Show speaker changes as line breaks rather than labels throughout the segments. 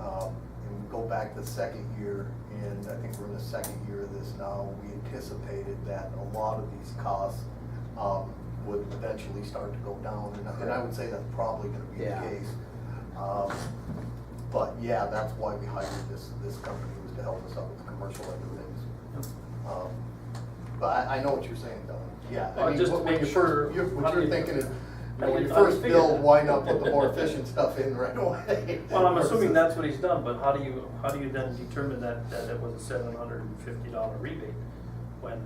Um, fact, the second year, and I think we're in the second year of this now, we anticipated that a lot of these costs um, would eventually start to go down, and I- and I would say that's probably gonna be
Yeah.
the case. Um, But yeah, that's why we hired this, this company, was to help us out with the commercial end of things. Um, But I, I know what you're saying, Don, yeah. I
Well,
mean,
just to
what- when
make
you're
sure-
first- you're- What
I
you're
mean-
thinking is, you
I
know, when
did-
you
I
first
figured
build,
that.
why not put the more efficient stuff in right away?
Well, I'm assuming
versus-
that's what he's done, but how do you, how do you then determine that, that it was a seven hundred and fifty dollar rebate when?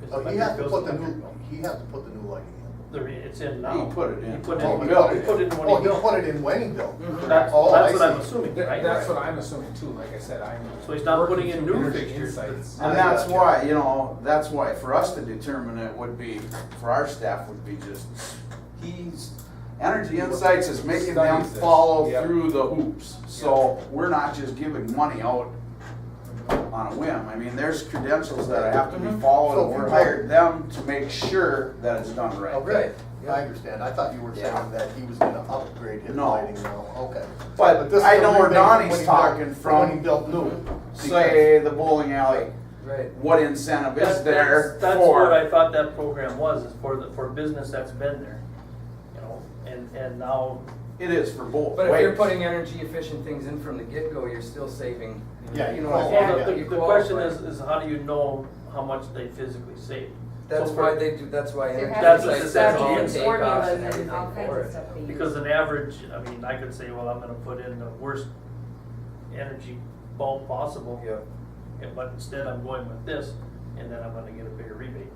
'cause
Oh, he has to
electric
put the
bill's electric
new,
bill.
he has to put the new lighting in.
The re- it's in now.
He put it in.
He put it
Oh,
in,
he
he
got
put it in
Oh,
when he.
he'll put it in when he built.
Mm-hmm. That's, that's
Oh, I
what I'm
see.
assuming,
That-
right?
That's what I'm assuming too, like I said, I'm.
So he's not
working
putting in
through
new
Energy
fixtures.
Insights.
And that's why, you know, that's why for us to determine it would be, for our staff would be just, he's, Energy Insights is making them
Studies this.
follow
Yep.
through the hoops. So we're not just giving money out on a whim. I mean, there's credentials that have to be
So
followed.
if
and
you want-
We hired them to make sure that it's done right.
Okay, I understand, I thought you were saying that he was gonna upgrade his
No.
lighting now, okay.
But
this
I
is
know
the
where
rebate
Donnie's
when he built-
talking from.
When he built new.
Say the bowling alley,
Right.
what incentive
That's-
is there
that's- That's what I
for?
thought that program was, is for the, for business that's been there, you know, and, and now,
It is for both
But if you're
ways.
putting energy efficient things in from the get-go, you're still saving.
Yeah,
You
you
know,
qualify.
yeah,
Well, the, the-
you
the question
qualify.
is, is how do you know how much they physically saved?
That's
So for-
why they do, that's why
There
energy
That's
has
what
to be
efficiency
it says on
certain
the
takeoffs
formulas
and
and all
everything for
kinds of
it.
stuff. that you-
Because an average, I mean, I could say, well, I'm gonna put in the worst energy bulb possible.
Yeah.
and- But instead I'm going with this, and then I'm gonna get a bigger rebate.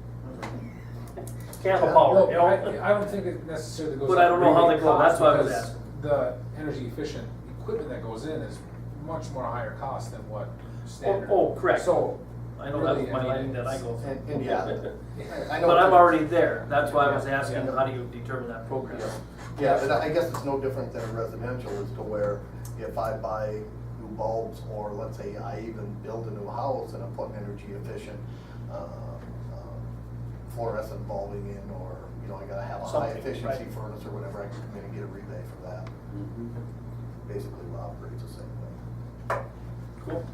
Candle power,
Well,
Oh, you
I, I
know?
don't think it necessarily goes.
But I don't know how they
rebate
go, that's
cost
why I was
because
asking.
The energy efficient equipment that goes in is much more higher cost than what standard.
oh, correct.
So.
I know that's
really,
my
mean,
line that I
it's-
go for.
And, and yeah. I- I know
But I'm
what you're-
already there, that's why I was
Yeah,
asking,
yeah.
how do you determine that program?
Yeah, but I guess it's no different than a residential as to where if I buy new bulbs or let's say I even build a new house and I put an energy efficient uh, uh, fluorescent bulbing in or, you know, I gotta have a high
Something,
efficiency
right.
furnace or whatever, I can come in and get a rebate for that.
Mm-hmm.
Basically, it operates the same way.
Cool.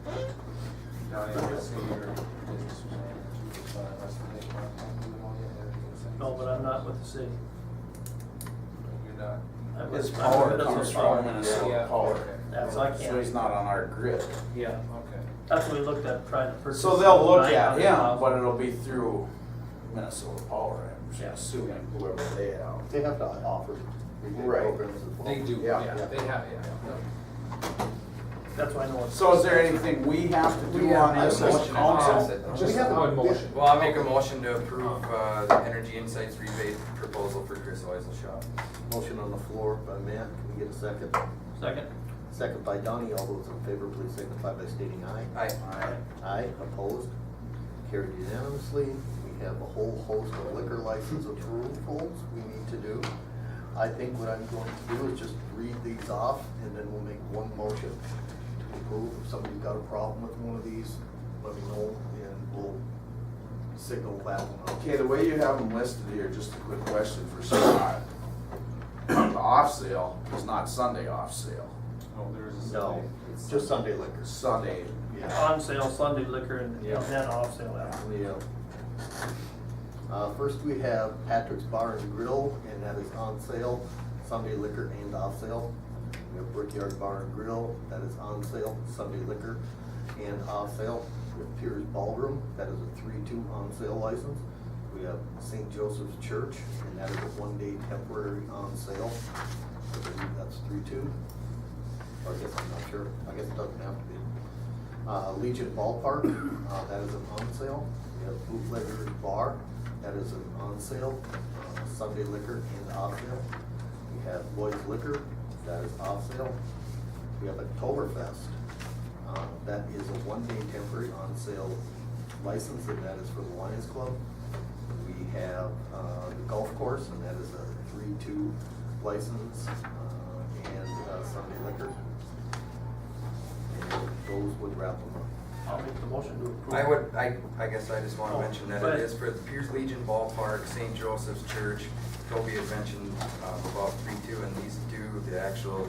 No, they would say your business was energy, but the rest of the day, but you don't get energy efficiency.
No, but I'm not with the city.
You're not.
I'm with-
His
I'm with
power
Minnesota
comes
Power.
from Minnesota
Yeah.
Power.
That's, I
So he's
can't,
not on our grid.
yeah,
Okay.
that's what we looked at, trying to purchase.
So they'll look at
900,000.
him, but it'll be through Minnesota Power, I'm
Yeah.
assuming, whoever they have.
They have to offer rebate
Right.
programs as well.
They do,
Yeah.
yeah, they have, yeah.
That's why I know it's.
So is there anything we have to do on this
We have
as
to
council?
motion and pass it.
We
Just
have
how
a-
in motion.
Well, I'll make a motion to approve, uh, the energy insights rebate proposal for Chris Oisel Shop.
Motion on the floor by Matt, can we get a second?
Second,
Second by Donnie, all those in favor, please signify by stating aye.
Aye.
Aye, opposed, carried unanimously. We have a whole host of liquor license approvals we need to do. I think what I'm going to do is just read these off, and then we'll make one motion to approve. If somebody's got a problem with one of these, let me know, and we'll signal that one out.
Okay, the way you have them listed here, just a quick question for Scott. The off sale is not Sunday off sale,
Oh, there is a.
No, it's just Sunday liquors.
Sunday.
Yeah.
on sale Sunday liquor and and then off sale after.
Yeah. Uh, first we have Patrick's Bar and Grill, and that is on sale, Sunday liquor and off sale. We have Brickyard Bar and Grill, that is on sale, Sunday liquor and off sale. We have Piers Ballroom, that is a three-two on sale license. We have St. Joseph's Church, and that is a one-day temporary on sale. I believe that's three-two. Or I guess I'm not sure, I guess it doesn't have to be uh, Legion Ballpark, uh, that is an on sale. We have Bootlegger's Bar, that is an on sale, uh, Sunday liquor and off sale. We have Lloyd's Liquor, that is off sale. We have Oktoberfest, uh, that is a one-day temporary on sale license, and that is for the Lions Club. We have, uh, the golf course, and that is a three-two license, uh, and uh, Sunday liquor. And those would wrap them up.
I'll make the motion to approve.
I would, I, I guess I just
Oh,
wanna mention that
go
it
ahead.
is for the Pierce Legion Ballpark, uh, St. Joseph's Church. Toby had mentioned, um, about three two, and these do, the actual